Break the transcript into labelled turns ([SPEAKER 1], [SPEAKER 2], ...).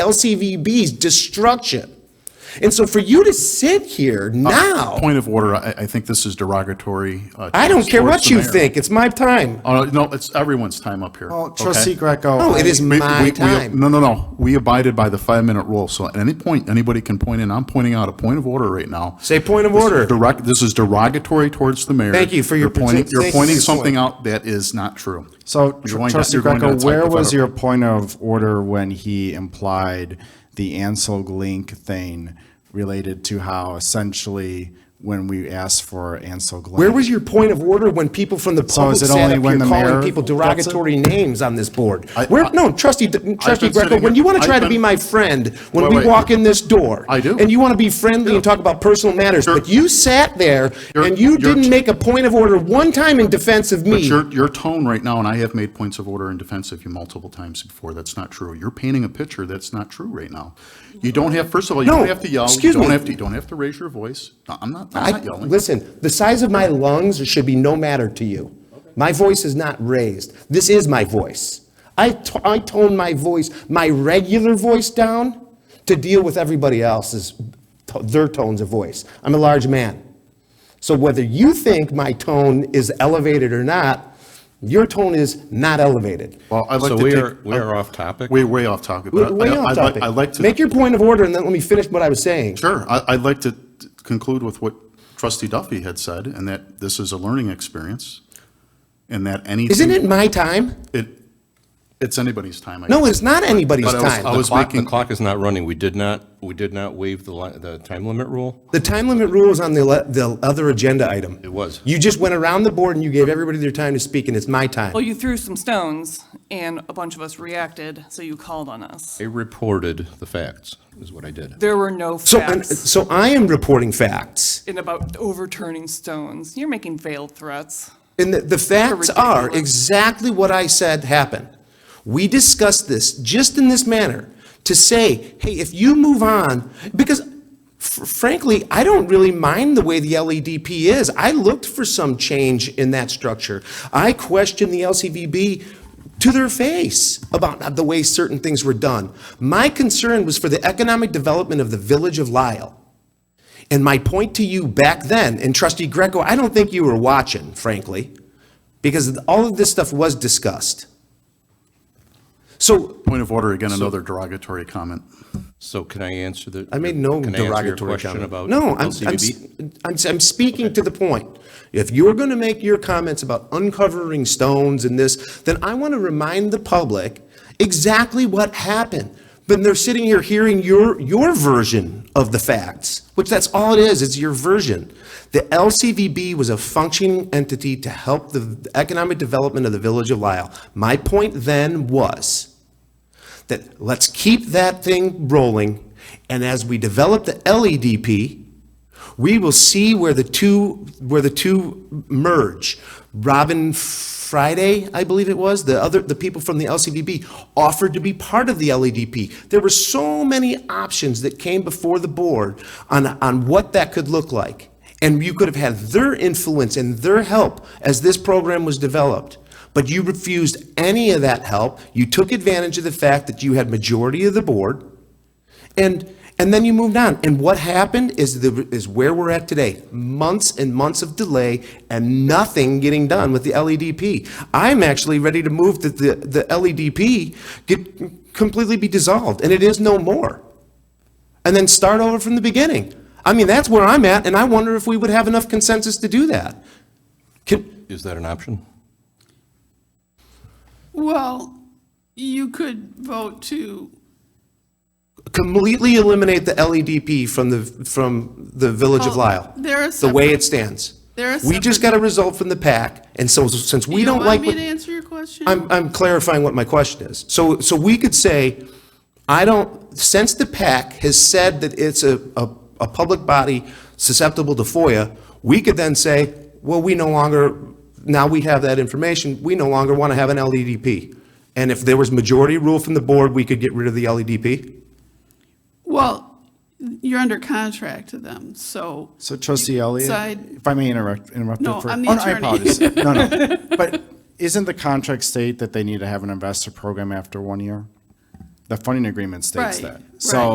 [SPEAKER 1] LCVB's destruction. And so for you to sit here now,
[SPEAKER 2] Uh, Point of order, I, I think this is derogatory. uh,
[SPEAKER 1] I don't care
[SPEAKER 2] towards
[SPEAKER 1] what
[SPEAKER 2] the
[SPEAKER 1] you
[SPEAKER 2] mayor.
[SPEAKER 1] think, it's my time.
[SPEAKER 2] Oh, no, it's everyone's time up here.
[SPEAKER 3] Oh,
[SPEAKER 2] okay? Oh.
[SPEAKER 3] trustee Greco.
[SPEAKER 1] No, it is
[SPEAKER 2] We- we-
[SPEAKER 1] my
[SPEAKER 2] we-
[SPEAKER 1] time.
[SPEAKER 2] No, no, no. We abided by the five-minute rule, so at any point, anybody can point in. I'm pointing out a point of order right now.
[SPEAKER 1] Say point of
[SPEAKER 2] This is
[SPEAKER 1] order.
[SPEAKER 2] Direct, this is derogatory towards the mayor.
[SPEAKER 1] Thank you for your
[SPEAKER 2] You're pointing,
[SPEAKER 1] partic-
[SPEAKER 2] you're
[SPEAKER 1] thank you
[SPEAKER 2] pointing
[SPEAKER 1] for your
[SPEAKER 2] something
[SPEAKER 1] point.
[SPEAKER 2] out that is not true.
[SPEAKER 3] So
[SPEAKER 2] You're going
[SPEAKER 3] tr-
[SPEAKER 2] to-
[SPEAKER 3] trustee
[SPEAKER 2] you're going to
[SPEAKER 3] Greco,
[SPEAKER 2] attack
[SPEAKER 3] where
[SPEAKER 2] the
[SPEAKER 3] was
[SPEAKER 2] federal-
[SPEAKER 3] your point of order when he implied the Ansel Glink thing related to how essentially when we asked for Ansel Glink?
[SPEAKER 1] Where was your point of order when people from the
[SPEAKER 3] So
[SPEAKER 1] public
[SPEAKER 3] is it
[SPEAKER 1] sat
[SPEAKER 3] only
[SPEAKER 1] up
[SPEAKER 3] when
[SPEAKER 1] here
[SPEAKER 3] the
[SPEAKER 1] calling
[SPEAKER 3] mayor
[SPEAKER 1] people
[SPEAKER 3] gets it?
[SPEAKER 1] derogatory names on this board?
[SPEAKER 2] I-
[SPEAKER 1] Where,
[SPEAKER 2] I-
[SPEAKER 1] no, trustee, trustee
[SPEAKER 2] been sitting
[SPEAKER 1] Greco, when
[SPEAKER 2] here-
[SPEAKER 1] you want to
[SPEAKER 2] I've
[SPEAKER 1] try to be
[SPEAKER 2] been-
[SPEAKER 1] my friend, when
[SPEAKER 2] Wait,
[SPEAKER 1] we
[SPEAKER 2] wait.
[SPEAKER 1] walk in this door.
[SPEAKER 2] I do.
[SPEAKER 1] And you want to be friendly and talk about personal matters,
[SPEAKER 2] You're-
[SPEAKER 1] but you sat there
[SPEAKER 2] You're-
[SPEAKER 1] and you
[SPEAKER 2] you're-
[SPEAKER 1] didn't make a point of order one time in defense of
[SPEAKER 2] But
[SPEAKER 1] me.
[SPEAKER 2] your, your tone right now, and I have made points of order in defense of you multiple times before, that's not true. You're painting a picture that's not true right now. You don't have, first of all, you
[SPEAKER 1] No,
[SPEAKER 2] don't have to yell.
[SPEAKER 1] excuse
[SPEAKER 2] You
[SPEAKER 1] me.
[SPEAKER 2] don't have to, you don't have to raise your voice. No, I'm not, I'm
[SPEAKER 1] I,
[SPEAKER 2] not yelling.
[SPEAKER 1] listen, the size of my lungs should be no matter to you. My voice is not raised. This is my voice. I t- I tone my voice, my regular voice down to deal with everybody else's, to- their tones of voice. I'm a large man. So whether you think my tone is elevated or not, your tone is not elevated.
[SPEAKER 2] Well, I'd like
[SPEAKER 4] So
[SPEAKER 2] to
[SPEAKER 4] we
[SPEAKER 2] take-
[SPEAKER 4] are- we are off topic?
[SPEAKER 2] We're way off topic. but
[SPEAKER 1] We're
[SPEAKER 2] I-
[SPEAKER 1] way
[SPEAKER 2] Uh, I-
[SPEAKER 1] off
[SPEAKER 2] I'd like-
[SPEAKER 1] topic.
[SPEAKER 2] I'd like to.
[SPEAKER 1] Make your point of order and then let me finish what I was saying.
[SPEAKER 2] Sure, I- I'd like to t- conclude with what trustee Duffy had said, and that this is a learning experience, and that anything.
[SPEAKER 1] Isn't it my time?
[SPEAKER 2] it- It's anybody's time. I
[SPEAKER 1] No,
[SPEAKER 2] guess.
[SPEAKER 1] it's not anybody's
[SPEAKER 2] But I was-
[SPEAKER 1] time.
[SPEAKER 2] I was
[SPEAKER 4] Clock- The
[SPEAKER 2] making,
[SPEAKER 4] clock is not running. We did not, we did not waive the, li- the time limit rule.
[SPEAKER 1] The time limit rule is on the, le- the other agenda item.
[SPEAKER 4] It was.
[SPEAKER 1] You just went around the board and you gave everybody their time to speak, and it's my time.
[SPEAKER 5] Well, Oh, you threw some stones, and a bunch of us reacted, so you called on us.
[SPEAKER 4] I reported the facts, is what I did.
[SPEAKER 5] There were no
[SPEAKER 1] So, and-
[SPEAKER 5] facts
[SPEAKER 1] so I am reporting facts.
[SPEAKER 5] in about overturning stones. You're making veiled threats.
[SPEAKER 1] And the, the facts are
[SPEAKER 5] ridiculous.
[SPEAKER 1] exactly what I said happened. We discussed this just in this manner to say, hey, if you move on, because fr- frankly, I don't really mind the way the LEDP is. I looked for some change in that structure. I questioned the LCVB to their face about the way certain things were done. My concern was for the economic development of the village of Lyle. And my point to you back then, and trustee Greco, I don't think you were watching, frankly, because all of this stuff was discussed. So
[SPEAKER 2] point of order, again, another derogatory comment.
[SPEAKER 4] So can I answer the?
[SPEAKER 1] I made no
[SPEAKER 4] can I answer your
[SPEAKER 1] derogatory
[SPEAKER 4] question
[SPEAKER 1] comment.
[SPEAKER 4] about
[SPEAKER 1] No, I'm, I'm,
[SPEAKER 4] LCBB?
[SPEAKER 1] I'm, I'm speaking to the point. If you're going to make your comments about uncovering stones and this, then I want to remind the public exactly what happened. Then they're sitting here hearing your, your version of the facts, which that's all it is, it's your version. The LCVB was a functioning entity to help the economic development of the village of Lyle. My point then was that let's keep that thing rolling, and as we develop the LEDP, we will see where the two, where the two merge. Robin Friday, I believe it was, the other, the people from the LCVB offered to be part of the LEDP. There were so many options that came before the board on, on what that could look like. And you could have had their influence and their help as this program was developed. But you refused any of that help. You took advantage of the fact that you had majority of the board. And, and then you moved on. And what happened is the, is where we're at today. Months and months of delay and nothing getting done with the LEDP. I'm actually ready to move that the, the LEDP get completely be dissolved and it is no more. And then start over from the beginning. I mean, that's where I'm at and I wonder if we would have enough consensus to do that. Can,
[SPEAKER 4] Is that an option?
[SPEAKER 6] Well, you could vote to,
[SPEAKER 1] completely eliminate the LEDP from the, from the Village of
[SPEAKER 6] Oh,
[SPEAKER 1] Lyle.
[SPEAKER 6] they're a
[SPEAKER 1] The way
[SPEAKER 6] separate-
[SPEAKER 1] it stands.
[SPEAKER 6] they're a
[SPEAKER 1] We just
[SPEAKER 6] separate-
[SPEAKER 1] got a result from the pack, and so since we
[SPEAKER 6] you
[SPEAKER 1] don't
[SPEAKER 6] don't
[SPEAKER 1] like
[SPEAKER 6] want me
[SPEAKER 1] what
[SPEAKER 6] to answer your question?
[SPEAKER 1] I'm, I'm clarifying what my question is. So, so we could say, I don't, since the PAC has said that it's a, a, a public body susceptible to FOIA, we could then say, well, we no longer, now we have that information, we no longer want to have an LEDP. And if there was majority rule from the board, we could get rid of the E LEDP?
[SPEAKER 6] Well, you're under contract to them, so.
[SPEAKER 3] So trustee Elliott,
[SPEAKER 6] Side-
[SPEAKER 3] if I may interrupt, interrupt.
[SPEAKER 6] No,
[SPEAKER 3] you for-
[SPEAKER 6] I'm the
[SPEAKER 3] Oh, I
[SPEAKER 6] attorney.
[SPEAKER 3] apologize. No, no. But isn't the contract state that they need to have an investor program after one year?
[SPEAKER 6] the funding agreement states
[SPEAKER 3] Right,
[SPEAKER 6] that. So